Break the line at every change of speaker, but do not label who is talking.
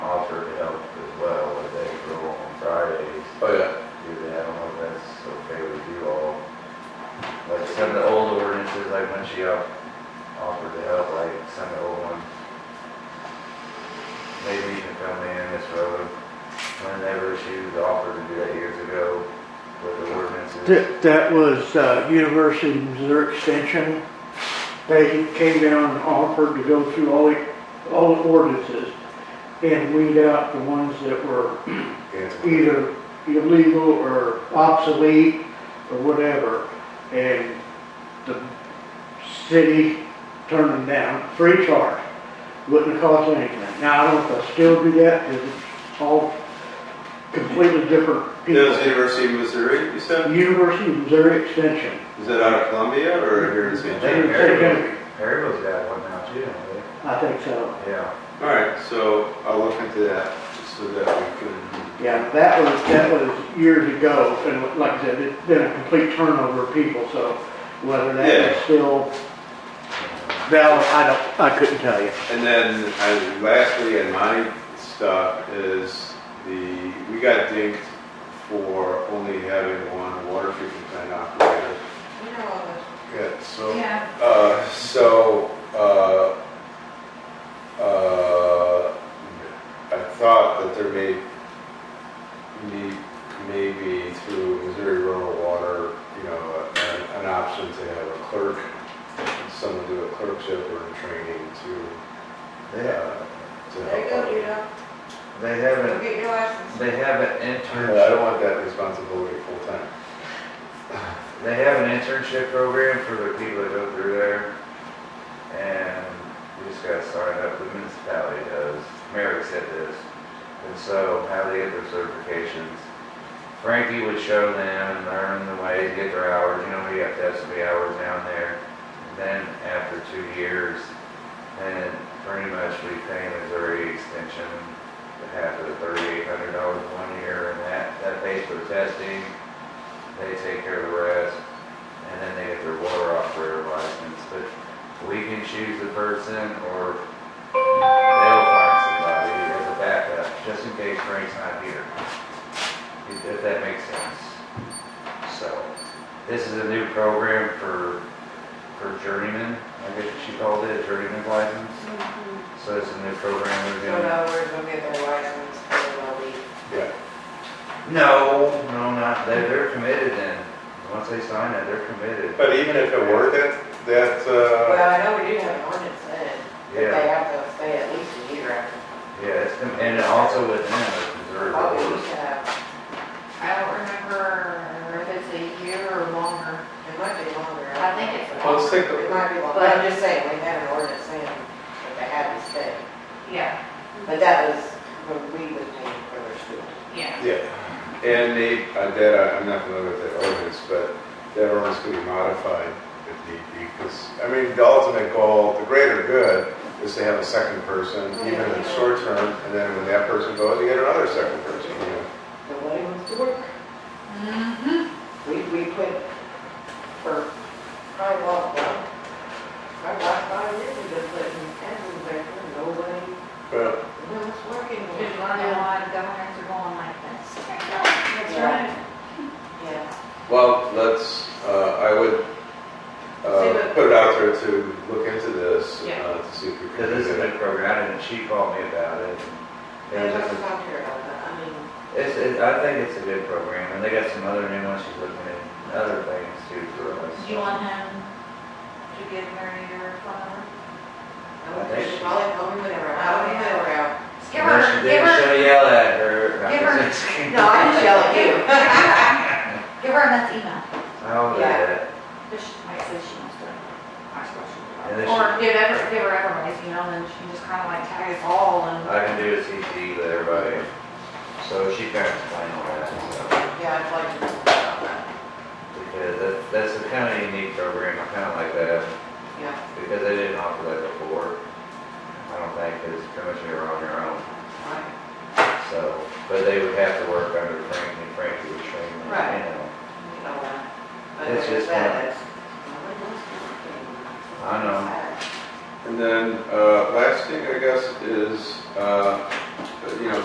Michelle offered to help, like, send the old one. Maybe even fill me in this road, whenever she was offered to do that years ago with the ordinances.
That, that was uh, University of Missouri Extension. They came down and offered to go through all the, all the ordinances and weed out the ones that were
Good.
either illegal or obsolete or whatever. And the city turned them down, free charge, wouldn't have cost anything. Now, I don't know if I still do that, 'cause it's all completely
That
different
was
people.
University of Missouri, you said?
University of Missouri Extension.
Is that out of Columbia or here in St.
They
John?
were Harryville, Harryville's got one now too, don't
I think so.
they? Yeah.
All right, so I'll look into that, just so that we can,
Yeah, that was, that was years ago, and like I said, it's been a complete turnover of people, so whether that is
Yeah.
still valid, I don't, I couldn't tell you.
and then I- lastly, and my stuff is the, we got dinged for only having one water treatment plant operator.
You know all those.
Good, so.
Yeah,
Uh, so, uh, uh, I thought that there may be, maybe through Missouri Rural Water, you know, an, an option to have a clerk, someone do a clerkship or a training to,
They,
uh, to
there you
help.
go,
out.
Judo.
they
Go
haven't,
get your license.
they haven't
Yeah, I don't
internship,
want that responsibility full time.
they have an internship program for the people that go through there. And we just got started up, the municipality does, Merrick said this. And so how they get their certifications. Frankie would show them and learn the way to get their hours, you know, we have to have some hours down there. Then after two years, and pretty much we pay Missouri Extension the half of the thirty-eight hundred dollars one year, and that, that pays for the testing. They take care of the rest, and then they get their water operator license, but we can choose the person, or they'll find somebody as a backup, just in case Frank's not here. If- If that makes sense. So, this is a new program for, for journeyman, I guess she called it, a journeyman license.
Mhm.
So it's a new program
So
we're doing.
now we're gonna get their license and they'll leave.
Yeah,
No, no, not, they're, they're committed then. Once they sign it, they're committed.
but even if it were that, that, uh,
Well, I know we do have an ordinance then, that they
Yeah.
have to stay at least a year after.
Yeah, it's, com- and also within the Missouri
Oh, we
rules.
used to have, I don't remember if it's a year or longer. It might be longer.
I think it's
let's
longer.
take a
It might be longer,
But-
I'm just saying, we had an ordinance then, that they had to stay.
Yeah,
But that was when we was paying for their school.
yeah.
Yeah, and they, uh, that, I- I'm not familiar with that ordinance, but that ordinance could be modified if need be, because, I mean, the ultimate goal, the greater good, is to have a second person, even in short term, and then when that person goes, you get another second person, you know?
Nobody wants to work.
Mm-hmm.
We, we quit for probably about, well, probably about five years ago, putting Edwin back there, nobody,
But
no one's working.
There's not a lot of governors are going like this. That's
Yeah.
right.
Yeah,
Well, let's, uh, I would,
See
uh,
what-
put it out there to look into this,
Yeah.
uh, to see if we can.
Cause
do
it's a
that.
new program and she called me about it.
they
It was
must
just,
talk to her about that, I mean,
it's, it, I think it's a good program and they got some other new ones she's looking at, other things too for us.
Do you want him to give Mary your phone number?
I would think she's probably home and around, I don't even around.
Just Give
Unless
her,
you
give
didn't
her,
show yell at her.
Give her-
No, I'm just yelling at you.
give her that email.
I'll do
Yeah.
that.
Just, I said she wants to ask
And then
questions.
she-
Or give ever, give her everybody's email and she can just kind of like tag us all and.
I can do a CC with everybody. So she can explain all that stuff.
Yeah, I'd like to talk about that,
Because that, that's a kind of unique program, I kind of like that,
yeah.
because they didn't offer that before. I don't think, because pretty much you're on your own,
Right.
so, but they would have to work under Frank, and Frank would train them,
Right.
you know.
You know, uh, But
It's
there's
just
that, that's, nobody wants to work.
I know.
And then, uh, last thing, I guess, is, uh,